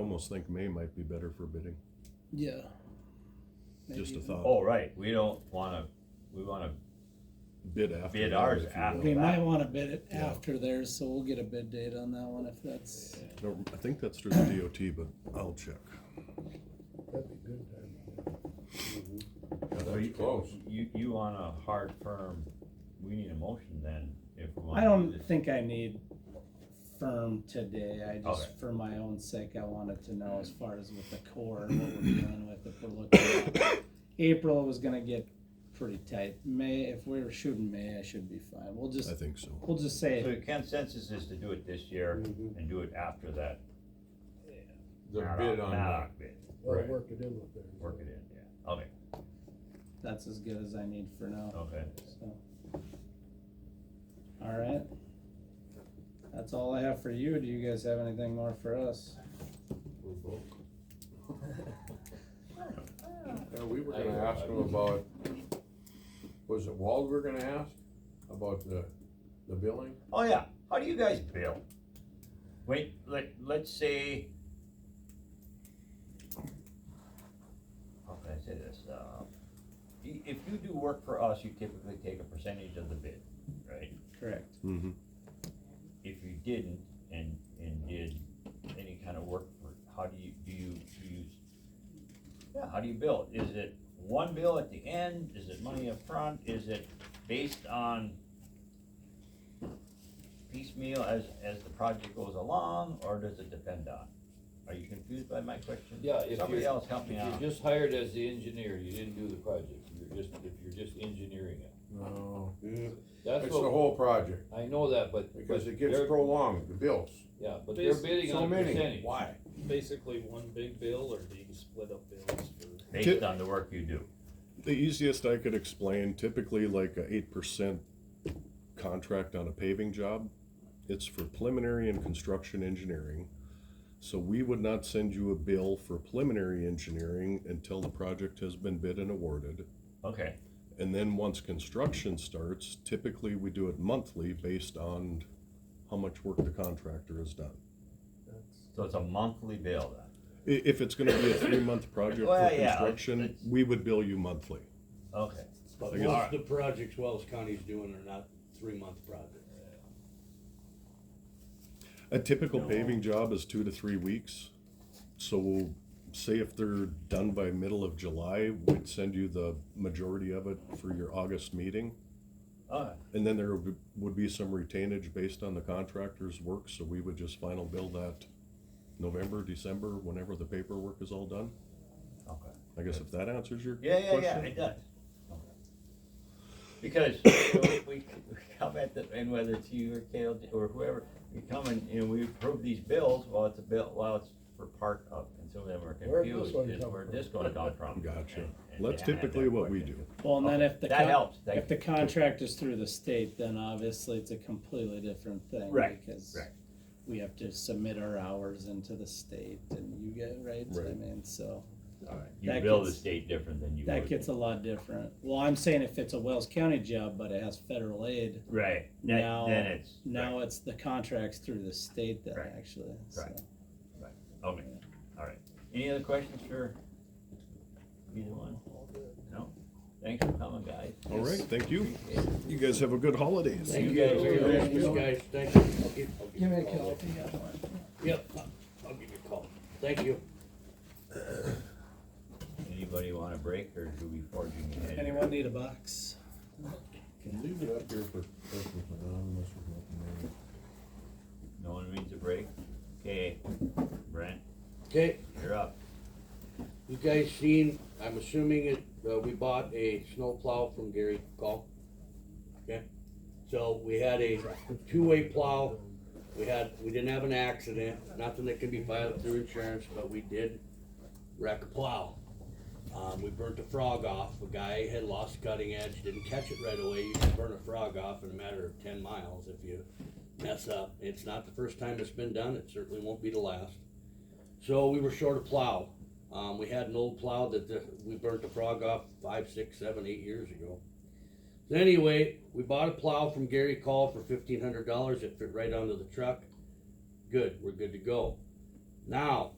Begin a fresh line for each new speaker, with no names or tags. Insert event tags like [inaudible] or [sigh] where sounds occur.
Almost think May might be better for bidding,
Yeah.
just a
Maybe.
thought.
Oh, right, we don't wanna, we wanna,
Bid after.
Bid
that,
ours
if you will.
after.
We might wanna bid it
Yeah.
after theirs, so we'll get a bid date on that one if that's,
No, I think that's through the DOT, but I'll check.
That'd be good time.
so you- you, you want a hard firm, we need a motion then, if we want.
I don't think I need firm today, I
Okay.
just, for my own sake, I wanted to know as far as with the core and what we're dealing with, if we're looking
[coughs]
at. April was gonna get pretty tight, May, if we were shooting May, I should be fine, we'll
I
just,
think so.
we'll just
So
say,
the consensus is to do it this year
Mhm.
and do it after that.
The
Maddox-
bid on that.
Maddox bid,
Or
Right.
work it in with theirs.
work it in, yeah, okay,
that's as good as I need for now,
okay.
so. Alright. That's all I have for you, do you guys have anything more for us?
We're both. Yeah, we were gonna ask him about, was it Wald we're gonna ask about the, the billing?
Oh, yeah, how do you guys bill? Wait, let, let's say. How can I say this, uh, i- if you do work for us, you typically take a percentage of the bid, right?
Correct.
Mhm.
If you didn't and, and did any kind of work for, how do you, do you, do you? Yeah, how do you bill? it? Is it one bill at the end? Is it money up front? Is it based on piecemeal as, as the project goes along, or does it depend on? Are you confused by my question?
Yeah, if
Somebody
you're-
else help me
If
out.
you're just hired as the engineer, you didn't do the project, you're just, if you're just engineering it.
No,
That's
it's the
what,
whole project,
I know that, but.
because
but
it gets
they're-
prolonged, the bills,
Yeah, but they're bidding
so
on a
many,
percentage.
why?
basically one big bill, or do you split up bills for?
Based on the work you do.
The easiest I could explain, typically like a eight percent contract on a paving job, it's for preliminary and construction engineering. So we would not send you a bill for preliminary engineering until the project has been bid and awarded.
Okay,
And then once construction starts, typically we do it monthly based on how much work the contractor has done.
so it's a monthly bill then?
I- if it's gonna be a three-month project for
Well, yeah,
construction,
it's-
we would bill you monthly.
Okay,
But
I guess-
most of the projects Wells County's doing are not three-month projects.
A typical paving job is two to three weeks. So say if they're done by middle of July, we'd send you the majority of it for your August meeting.
okay,
And then there would- would be some retainage based on the contractor's work, so we would just final bill that November, December, whenever the paperwork is all done.
okay.
I guess if that answers your
Yeah,
question.
yeah, yeah, it does. Because you know, we, we come at the, and whether it's you or Kale or whoever, we come and, you know, we approve these bills, well, it's a bill, well, it's for part of, and some of them are
Where'd this
confused,
one
is
come
where
from?
this gonna come
[laughs]
from?
Gotcha.
and- and
That's
they have that
typically what we
question.
do.
Well, and then
Okay,
if the.
Oh, That
con-
helps,
If
thank
the
you.
contract is through the state, then obviously it's a completely different thing.
Right,
Because
right.
we have to submit our hours into the state and you get, right, I
Right.
mean, so
Alright, You
that
bill the
gets-
state different than you
that
would.
gets a lot different. Well, I'm saying if it's a Wells County job, but it has federal aid,
Right,
Now-
then, then it's, right,
now it's the contracts through the state then
Right.
actually, so.
Right. okay, alright. Any other questions for either one? No? Thanks for coming, guys.
All right, thank you. You guys have a good holidays.
Thank you. guys.
Thanks, guys, thank you. I'll give- I'll give
give
you
me
a
a call
call.
if you got one.
Yep, I'll- I'll give you a call, thank you.
Anybody want a break or do we forging ahead?
Anyone need a box?
Leave it up here for, for anonymous or nothing.
No one needs a break? Okay, Brent,
Okay,
you're up.
you guys seen, I'm assuming it, uh, we bought a snow plow from Gary Call. Okay, so we had a two-way plow, we had, we didn't have an accident, nothing that can be filed through insurance, but we did wreck a plow. Um, we burnt a frog off, a guy had lost cutting edge, didn't catch it right away, you can burn a frog off in a matter of ten miles if you mess up. It's not the first time it's been done, it certainly won't be the last. So we were short a plow. Um, we had an old plow that the, we burnt the frog off five, six, seven, eight years ago. So anyway, we bought a plow from Gary Call for fifteen hundred dollars. It fit right onto the truck. Good, we're good to go. Now,